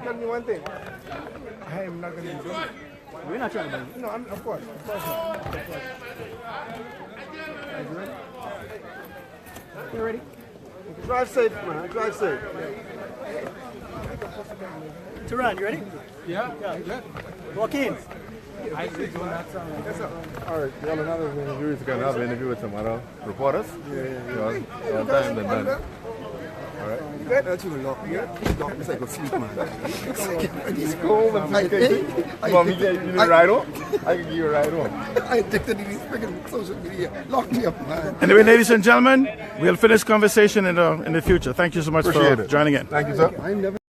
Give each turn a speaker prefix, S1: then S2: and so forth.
S1: Tell me one thing. I am not going to be doing it.
S2: We're not trying to bang.
S1: No, I'm, of course. Of course not. Of course not. Are you ready?
S2: You ready?
S1: Drive safe, man. Drive safe.
S2: Turan, you ready?
S3: Yeah, yeah, good.
S2: Walk in.
S3: I think on that sound.
S1: Yes, sir.
S4: All right, y'all another interview. We're gonna have an interview with some other reporters. Yeah, yeah.
S1: Hey,
S4: on
S1: you
S4: time
S1: guys,
S4: and
S1: man.
S4: done.
S1: You good? That you lock me up. You lock me so I go sleep, man. It's
S4: Cool,
S1: cold.
S4: man.
S1: I'm
S4: I can
S1: addicted.
S4: give-
S1: I
S4: You want me to give
S1: addicted.
S4: you a
S1: I-
S4: ride home? I can give you a ride home.
S1: I addicted to these freaking social media. Lock me up, man.
S5: Anyway, ladies and gentlemen, we'll finish conversation in the in the future. Thank you so much
S4: Appreciate
S5: for
S4: it.
S5: joining in.
S4: Thank you, sir.
S1: I never.